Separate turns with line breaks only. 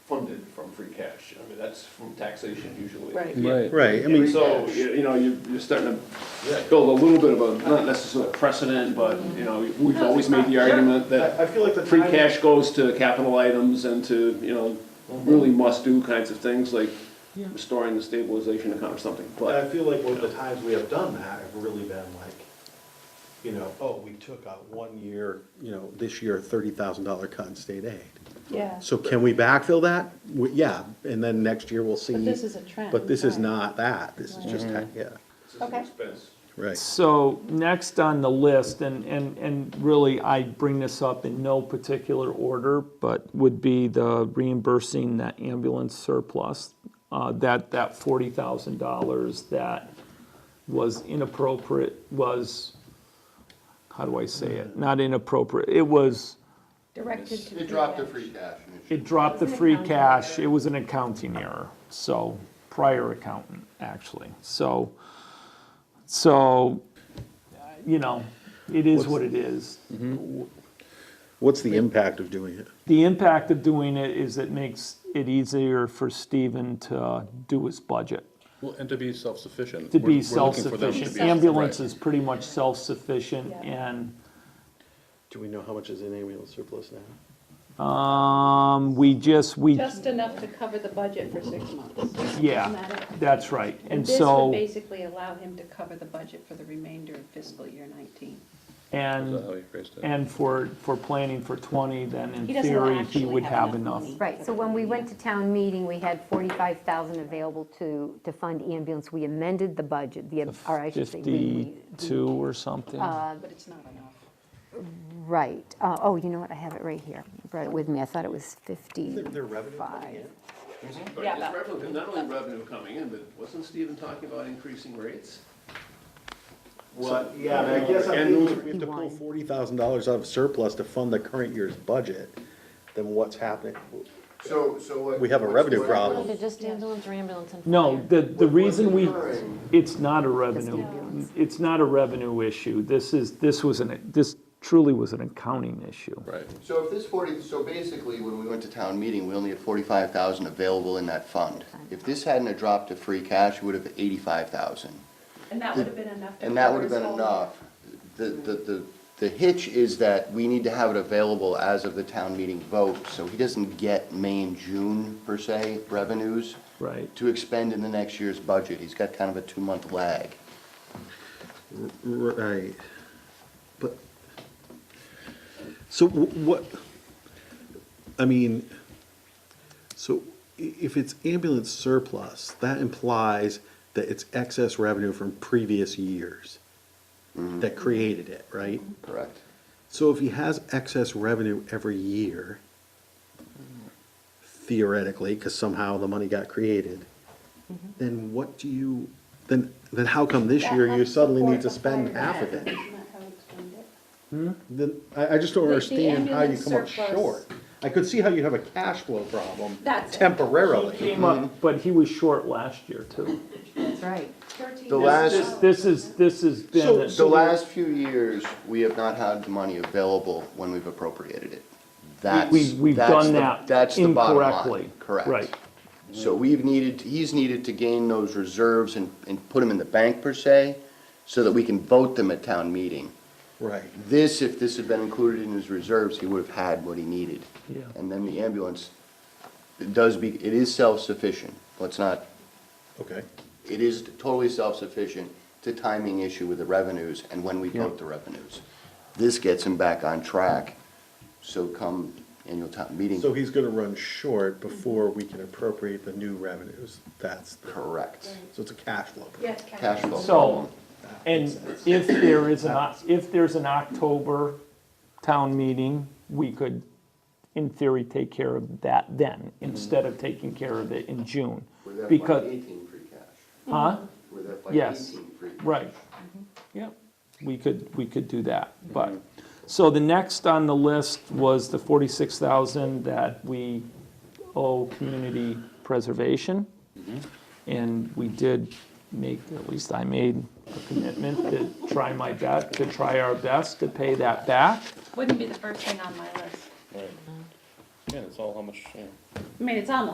from free cash. I mean, that's from taxation usually.
Right.
Right.
Right, I mean,
So, you you know, you- you're starting to build a little bit of a, not necessarily precedent, but, you know, we've always made the argument
I I
that
feel like the
free
timing,
cash goes to capital items and to, you know, really must-do kinds of things, like restoring the stabilization account or something,
I
but,
feel like with the times we have done that have really been like, you know, oh, we took out one year, you know, this year thirty thousand dollar cut in state aid.
Yeah,
So can we backfill that? We- Yeah, and then next year we'll see.
but this is a trend.
But this is
right.
not that, this is just, ha- yeah,
Okay.
right.
So next on the list, and, and, and really I bring this up in no particular order, but would be the reimbursing that ambulance surplus, uh, that, that forty thousand dollars that was inappropriate, was, how do I say it? Not inappropriate, it was,
Directed to.
It dropped the free cash.
it dropped the free cash, it was an accounting error, so, prior accountant, actually, so, so, you know, it is what it is.
What's the impact of doing it?
The impact of doing it is it makes it easier for Steven to do his budget,
Well, and to be self-sufficient.
to
We're- we're
be
looking for them to
self-sufficient.
be-
Ambulance
right.
is pretty much self-sufficient, and,
Do we know how much is in ambulance surplus now?
um, we just, we,
Just enough to cover the budget for six months. Isn't
yeah,
that it?
that's right, and
This would
so,
basically allow him to cover the budget for the remainder of fiscal year nineteen.
and.
Is that how you phrased it?
And for, for planning for 20, then in
He doesn't
theory, he
actually
would
have
have
enough
enough.
money.
Right, so when we went to town meeting, we had 45,000 available to, to fund ambulance. We amended the budget, the, or I should say, we- we,
52 or something?
Uh, But it's not enough.
right. Uh, Oh, you know what, I have it right here. I Brought it with me, I thought it was 55.
Their revenue coming in?
but
Yeah,
it's
that-
revenue- not only revenue coming in, but wasn't Stephen talking about increasing rates?
What, yeah, I guess I
And
think if we have to pull
Fifty-one.
forty thousand dollars out of surplus to fund the current year's budget, then what's happening?
So, so what?
We have a
what's-
revenue
what-
problem.
They're just ambulance or ambulance and.
Um, No,
fire.
the, the
What-
reason
what's
we,
occurring?
it's not a revenue, it's not a revenue issue. This is, this was an, this truly was an accounting issue.
Right.
So if this forty, so basically, when we went to town meeting, we only had forty-five thousand available in that fund. If this hadn't have dropped to free cash, it would have eighty-five thousand.
And that would have been enough. to
And that
cover
would have
his
been
whole-
enough. The, the, the, the hitch is that we need to have it available as of the town meeting vote, so he doesn't get May and June per se revenues
Right.
to expend in the next year's budget. He's got kind of a two-month lag.
Right, but, so wh- what, I mean, so i- if it's ambulance surplus, that implies that it's excess revenue from previous years that created it, right?
Correct.
So if he has excess revenue every year, theoretically, because somehow the money got created, then what do you, then, then how come this
That
year you
helps
suddenly need to
support the
spend
fire
half of
department.
it?
Isn't that how
Hmm?
he explained it?
Then, I, I just don't
The- the
understand how you
ambulance
come up
surplus-
short. I could see how you have a cash flow problem
That's it.
temporarily.
Came up, but he was short last year too.
That's right.
Thirteen
The
thousand
last-
dollars.
This is, this has been,
So-
The
a-
last few years, we have not had the money available when we've appropriated it. That's,
we, we've
that's
done
the-
that
that's the bottom line.
incorrectly.
Correct.
Right.
So we've needed, he's needed to gain those reserves and, and put them in the bank per se, so that we can vote them at town meeting.
Right.
This, if this had been included in his reserves, he would have had what he needed.
Yeah.
And then the ambulance, it does be, it is self-sufficient. Let's not
Okay.
it is totally self-sufficient. It's a timing issue with the revenues and when we vote the revenues. This gets him back on track, so come annual town meeting,
So he's gonna run short before we can appropriate the new revenues. That's, the-
correct.
so it's a cash flow. problem.
Yes,
Cash flow
So,
problem.
and if there is an, Oc- if there's an October town meeting, we could, in theory, take care of that then, instead of taking care of it in June. Because,
Eighteen free cash.
huh?
We're that by
Yes,
eighteen free. cash.
Right, yeah, we could, we could do that, but, so the next on the list was the forty-six thousand that we owe community preservation. And we did make, at least I made a commitment to try my best, to try our best to pay that back.
Wouldn't be the first thing on my list.
Yeah, it's all how much, yeah.
I mean, it's on the